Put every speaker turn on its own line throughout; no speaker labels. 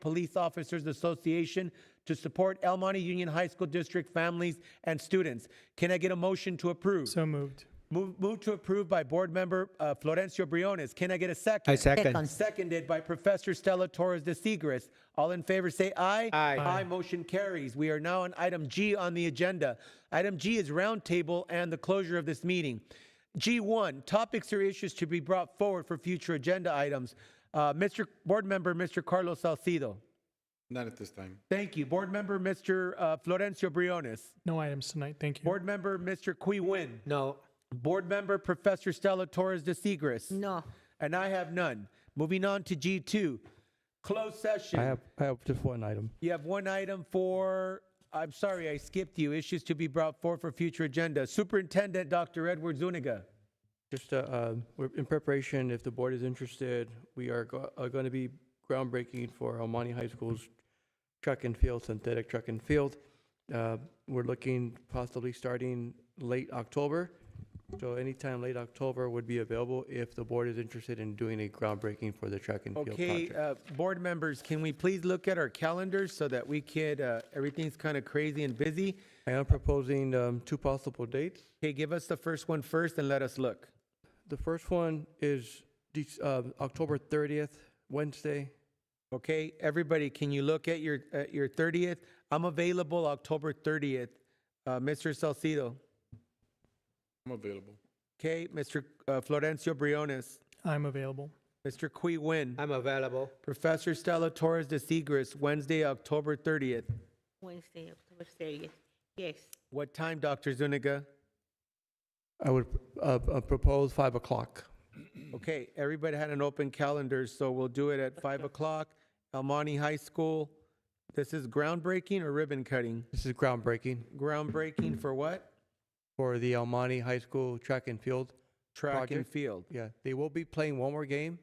Police Officers Association to support El Monte Union High School District families and students. Can I get a motion to approve?
So moved.
Move, move to approve by Board Member uh, Florencio Briones. Can I get a second?
I second.
Second.
Seconded by Professor Stella Torres de Seigres. All in favor say aye.
Aye.
Aye. Motion carries. We are now on item G on the agenda. Item G is roundtable and the closure of this meeting. G1, topics or issues to be brought forward for future agenda items. Uh, Mr. Board Member, Mr. Carlos Salcido.
Not at this time.
Thank you. Board Member, Mr. Uh, Florencio Briones.
No items tonight. Thank you.
Board Member, Mr. Qui Win.
No.
Board Member, Professor Stella Torres de Seigres.
No.
And I have none. Moving on to G2, closed session.
I have, I have just one item.
You have one item for, I'm sorry, I skipped you, issues to be brought forth for future agenda. Superintendent Dr. Edward Zuniga.
Just, uh, um, we're in preparation, if the board is interested, we are go- are going to be groundbreaking for Almani High School's track and field, synthetic track and field. Uh, We're looking possibly starting late October. So anytime late October would be available if the board is interested in doing a groundbreaking for the track and field
Okay,
project.
uh, board members, can we please look at our calendars so that we could, uh, everything's kind of crazy and busy?
I am proposing um, two possible dates.
Okay, give us the first one first and let us look.
The first one is Dec- uh, October 30th, Wednesday.
Okay, everybody, can you look at your, at your 30th? I'm available October 30th. Uh, Mr. Salcido.
I'm available.
Okay, Mr. uh, Florencio Briones,
I'm available.
Mr. Qui Win,
I'm available.
Professor Stella Torres de Seigres, Wednesday, October 30th.
Wednesday, October 30th. Yes.
What time, Dr. Zuniga?
I would uh, uh, propose 5 o'clock.
Okay, everybody had an open calendar, so we'll do it at 5 o'clock, El Monte High School. This is groundbreaking or ribbon cutting?
This is groundbreaking
Groundbreaking for what?
for the Almani High School track and field.
Track and
Project.
field.
Yeah, they will be playing one more game.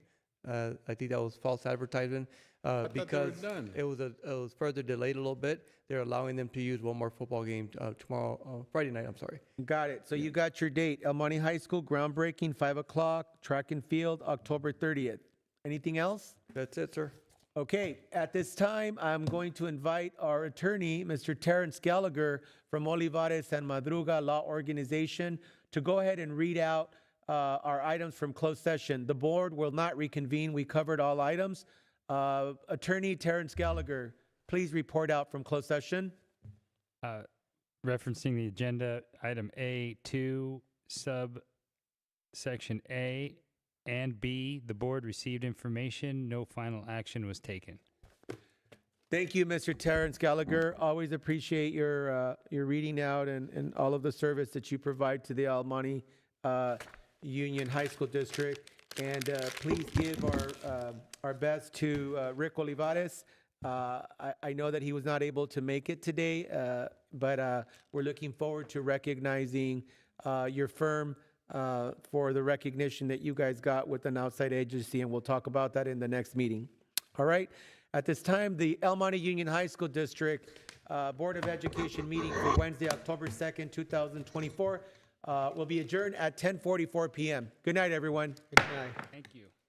Uh, I think that was false advertisement
I
uh,
thought they were
because
done.
it was a, it was further delayed a little bit. They're allowing them to use one more football game uh, tomorrow, uh, Friday night. I'm sorry.
Got it. So you got your date, El Monte High School, groundbreaking, 5 o'clock, track and field, October 30th. Anything else?
That's it, sir.
Okay, at this time, I'm going to invite our attorney, Mr. Terrence Gallagher from Olivares and Madruga Law Organization, to go ahead and read out uh, our items from closed session. The board will not reconvene. We covered all items. Uh, Attorney Terrence Gallagher, please report out from closed session.
Uh, referencing the agenda, item A2, sub section A and B, the board received information, no final action was taken.
Thank you, Mr. Terrence Gallagher. Always appreciate your, uh, your reading out and, and all of the service that you provide to the Almani, uh, Union High School District. And, uh, please give our, uh, our best to, uh, Rick Olivares. Uh, I, I know that he was not able to make it today, uh, but, uh, we're looking forward to recognizing, uh, your firm, uh, for the recognition that you guys got with an outside agency, and we'll talk about that in the next meeting. All right. At this time, the El Monte Union High School District uh, Board of Education meeting for Wednesday, October 2nd, 2024, uh, will be adjourned at 10:44 p.m. Good night, everyone.
Good night.
Thank you.